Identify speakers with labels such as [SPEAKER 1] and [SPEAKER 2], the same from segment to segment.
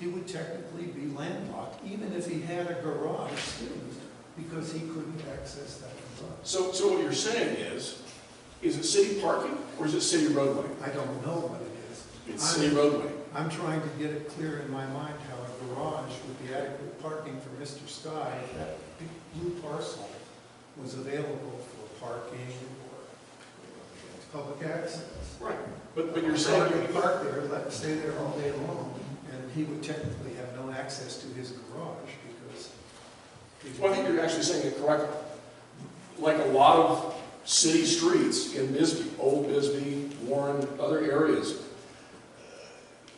[SPEAKER 1] he would technically be landlocked, even if he had a garage too, because he couldn't access that garage.
[SPEAKER 2] So, so what you're saying is, is it city parking or is it city roadway?
[SPEAKER 1] I don't know what it is.
[SPEAKER 2] It's city roadway.
[SPEAKER 1] I'm trying to get it clear in my mind how a garage would be adequate parking for Mr. Sky if that big blue parcel was available for parking or public access.
[SPEAKER 2] Right. But, but you're saying,
[SPEAKER 1] He could
[SPEAKER 2] you-
[SPEAKER 1] park there, let, stay there all day long, and he would technically have no access to his garage because. he-
[SPEAKER 2] well, I think you're actually saying it correctly. Like a lot of city streets in Bisbee, Old Bisbee, Warren, other areas,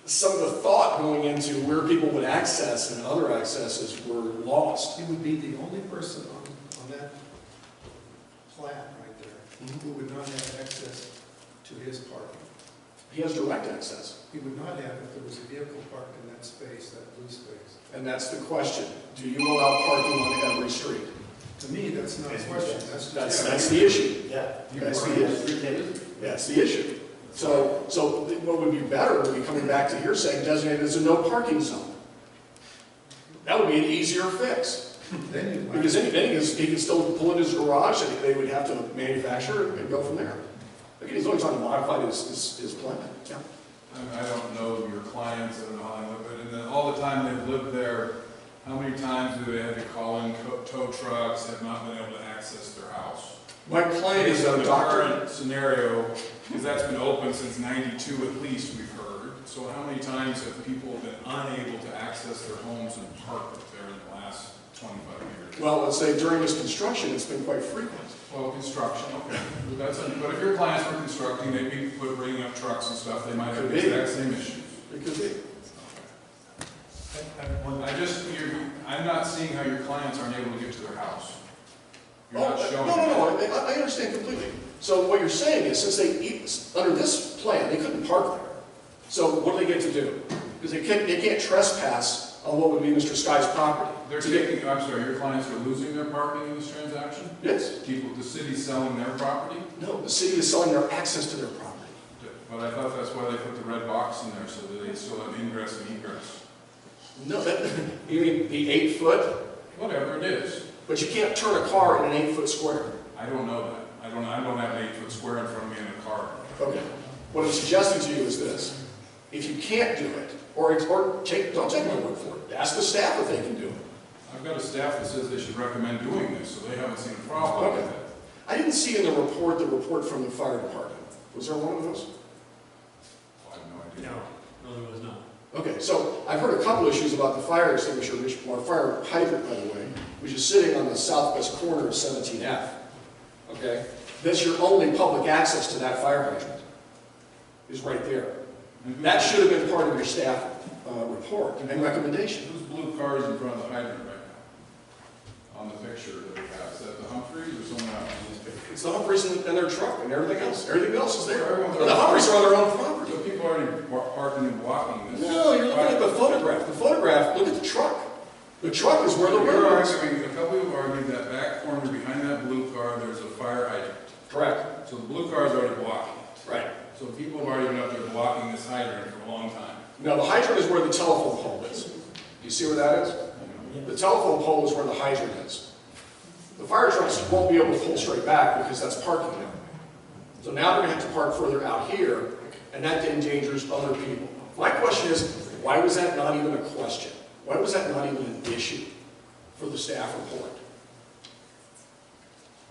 [SPEAKER 2] some of the thought going into where people would access and other accesses were lost.
[SPEAKER 1] He would be the only person on, on that plat right there
[SPEAKER 2] Mm-hmm.
[SPEAKER 1] who would not have access to his parking.
[SPEAKER 2] He has direct access.
[SPEAKER 1] He would not have if there was a vehicle parked in that space, that blue space.
[SPEAKER 2] And that's the question. Do you allow parking on every street?
[SPEAKER 1] To me, that's not a question, that's
[SPEAKER 2] That's,
[SPEAKER 1] just.
[SPEAKER 2] that's the issue.
[SPEAKER 3] Yeah.
[SPEAKER 2] That's the issue. That's the issue. So, so what would be better would be coming back to here saying designated as a no parking zone. That would be an easier fix,
[SPEAKER 1] Then you might,
[SPEAKER 2] because then then he can, he can still pull in his garage, and they would have to manufacture it and go from there. Again, he's only trying to modify his, his, his plan. Yeah.
[SPEAKER 4] I I don't know your clients, I don't know how they live, but in the, all the time they've lived there, how many times do they have to call in co- tow trucks, have not been able to access their house?
[SPEAKER 2] My client is a
[SPEAKER 4] The
[SPEAKER 2] doctor.
[SPEAKER 4] current Scenario, because that's been open since ninety-two at least, we've heard. So how many times have people been unable to access their homes and park there in the last twenty-five years?
[SPEAKER 2] Well, let's say during this construction, it's been quite frequent.
[SPEAKER 4] Well, construction, okay, But that's, but if your clients were constructing, they'd be bringing up trucks and stuff, they might have the
[SPEAKER 2] Could be.
[SPEAKER 4] exact same issues.
[SPEAKER 2] It could be.
[SPEAKER 4] I just, you're, I'm not seeing how your clients aren't able to get to their house. You're not
[SPEAKER 2] Oh,
[SPEAKER 4] showing.
[SPEAKER 2] No,
[SPEAKER 4] that.
[SPEAKER 2] no, no, I, I understand completely. So what you're saying is, since they, eat- under this plan, they couldn't park there. So what do they get to do? Because they can't, they can't trespass on what would be Mr. Sky's property.
[SPEAKER 4] They're
[SPEAKER 2] So they-
[SPEAKER 4] taking, I'm sorry, your clients are losing their parking in this transaction?
[SPEAKER 2] Yes,
[SPEAKER 4] People, the city's selling their property?
[SPEAKER 2] no, the city is selling their access to their property.
[SPEAKER 4] But I thought that's why they put the red box in there, so that they still have ingress and egress.
[SPEAKER 2] No, that, you mean the eight foot,
[SPEAKER 4] Whatever it is,
[SPEAKER 2] but you can't turn a car in an eight foot square.
[SPEAKER 4] I don't know that. I don't, I don't have an eight-foot square in front of me in a car.
[SPEAKER 2] Okay. What I'm suggesting to you is this. If you can't do it, or, or take, don't take my word for it, ask the staff if they can do it.
[SPEAKER 4] I've got a staff that says they should recommend doing this, so they haven't seen a problem with
[SPEAKER 2] Okay.
[SPEAKER 4] it.
[SPEAKER 2] I didn't see in the report, the report from the fire department. Was there one of those?
[SPEAKER 4] I have no idea.
[SPEAKER 5] No, there was not.
[SPEAKER 2] Okay, so I've heard a couple issues about the fire extinguisher, which, or fire hydrant, by the way, which is sitting on the southwest corner of 17F. Okay? That's your only public access to that fire hydrant, is right there.
[SPEAKER 4] And who-
[SPEAKER 2] That should have been part of your staff uh, report and recommendation.
[SPEAKER 4] Those blue cars in front of the hydrant right now, on the picture that we have, is that the Humphreys or someone else?
[SPEAKER 2] It's the Humphreys and and their truck and everything else. Everything else is there.
[SPEAKER 4] Everyone's-
[SPEAKER 2] The Humphreys are on their own property.
[SPEAKER 4] So people are already wa- parking and walking this.
[SPEAKER 2] No, you're looking at the photograph. The photograph, look at the truck. The truck is where the
[SPEAKER 4] You're
[SPEAKER 2] road is.
[SPEAKER 4] arguing, a couple of you argued that back corner behind that blue car, there's a fire hydrant.
[SPEAKER 2] Correct.
[SPEAKER 4] So the blue car's already blocking it.
[SPEAKER 2] Right.
[SPEAKER 4] So people have already been up there blocking this hydrant for a long time.
[SPEAKER 2] Now, the hydrant is where the telephone pole is. Do you see where that is? The telephone pole is where the hydrant is. The fire trucks won't be able to pull straight back because that's parking there. So now they're gonna have to park further out here, and that endangers other people. My question is, why was that not even a question? Why was that not even an issue for the staff report?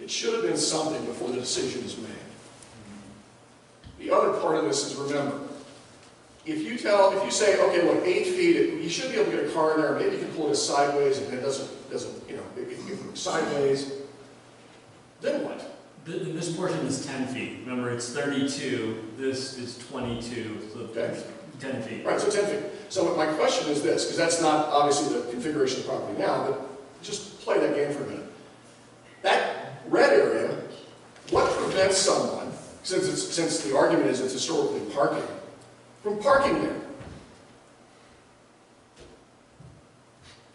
[SPEAKER 2] It should have been something before the decision is made. The other part of this is, remember, if you tell, if you say, okay, look, eight feet, you should be able to get a car in there, maybe you can pull it sideways, and it doesn't, doesn't, you know, it can move sideways, then what?
[SPEAKER 5] Th- and This portion is 10 feet. Remember, it's 32, this is 22, so
[SPEAKER 2] Okay.
[SPEAKER 5] 10 feet.
[SPEAKER 2] Right, so ten feet. So my question is this, because that's not obviously the configuration of the property now, but just play that game for a minute. That red area, what prevents someone, since it's, since the argument is it's historically parking, from parking there?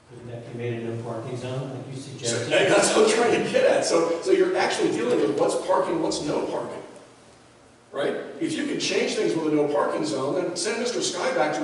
[SPEAKER 3] Couldn't that be made a no parking zone, like you
[SPEAKER 2] So
[SPEAKER 3] suggested?
[SPEAKER 2] that- that's what I'm trying to get at. So, so you're actually dealing with what's parking, what's no parking, right? If you can change things with a no parking zone, then send Mr. Sky back to